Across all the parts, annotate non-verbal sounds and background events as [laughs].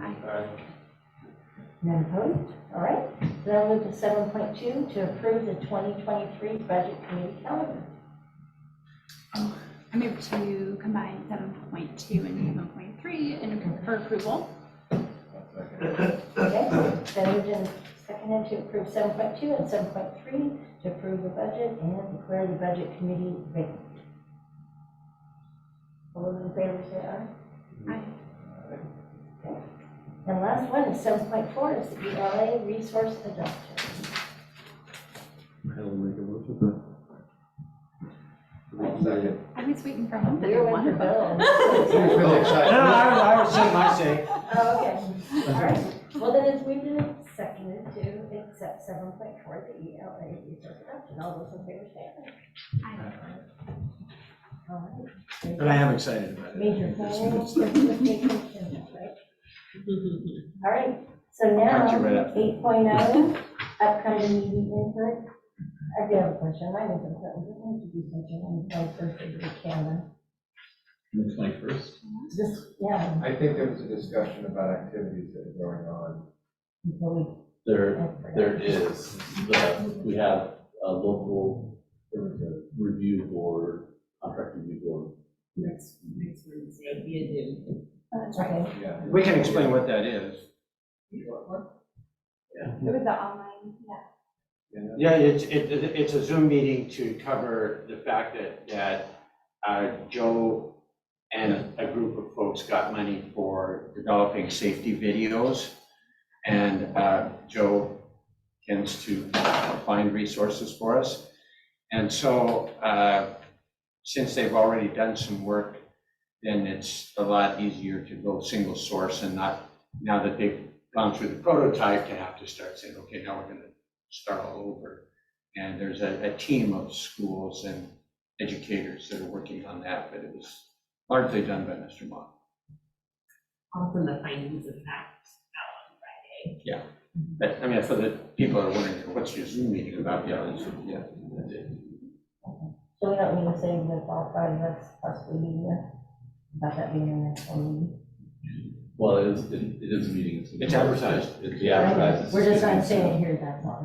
Aye. None opposed? All right, so now move to seven point two, to approve the twenty twenty-three budget committee calendar. I move to combine seven point two and seven point three and appro- for approval. Okay, so moved and seconded to approve seven point two and seven point three, to approve the budget and declare the budget committee vacant. All those in favor say aye. Aye. And last one is seven point four, is the ELA resource adoption. I'll make a motion for that. Second. I was waiting for him to We're do one for one. Bill. Who's No, really no, excited? I would, I would say my say. Oh, okay, all right. Well, then it's moved and seconded to accept seven point four, the ELA resource adoption. All those in favor say aye. Aye. All right. But I am excited about it. Major It's- planning, it's- Christmas vacation, right? All right, so punch you right now, up. eight oh, upcoming meeting input. I do have a question, mine is important, we need to do something on the twenty first of the calendar. The twenty-first? Just, yeah, I think there was a discussion about activities that are going on. until we. There, I forgot. there is, the, we have a local review board, contract review board. Next, next Wednesday, via Zoom. That's right. Okay, Yeah. We can explain what that is. It was the online, yeah. Yeah, it's, it, it's a Zoom meeting to cover the fact that, that uh, Joe and a group of folks got money for developing safety videos. And uh, Joe tends to find resources for us. And so, uh, since they've already done some work, then it's a lot easier to go single source and not, now that they've gone through the prototype, to have to start saying, okay, now we're gonna start all over. And there's a, a team of schools and educators that are working on that, but it was largely done by Mr. Mock. Also the findings of fact eh? out on Friday. But, I mean, for the people that are wondering, what's your Zoom meeting about, yeah, that's, yeah, that's it. so we don't need to say that all five of us possibly be here, about that being the next one meeting. Well, it is, it it is a meeting. gonna be- It's advertised. It's yeah, advertised. It's We're just gonna not be- saying it here, that's all.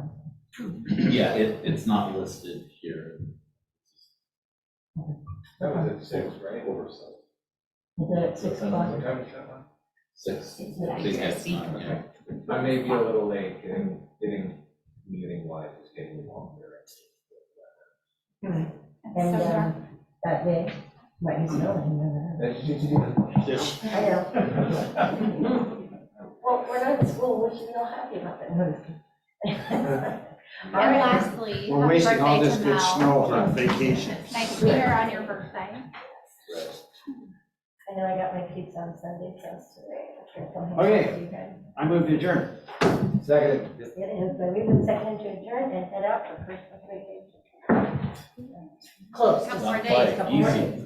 Yeah, it, it's not listed here. That was at six, right? Oversight. Is it at six o'clock? What time is that one? Six. It's I think that's accuracy. not, yeah. I may be a little late getting, getting, meeting wise, it's getting longer. Mm-hmm. And, So dark. um, that day, might be snowing, you never know. This, I know. Well, we're not in school, we should be all happy about that. No, just kidding. And lastly, we're happy wasting all birthday this to good Mel. snow on vacations. Nice to meet her on your birthday. I know I got my kids on Sunday, so it's today. Okay. I moved to adjourn. [laughs] Second. It has been, we've been seconded to adjourn and head out for Christmas vacation. Close. Couple more Not days, quite, couple more Easy.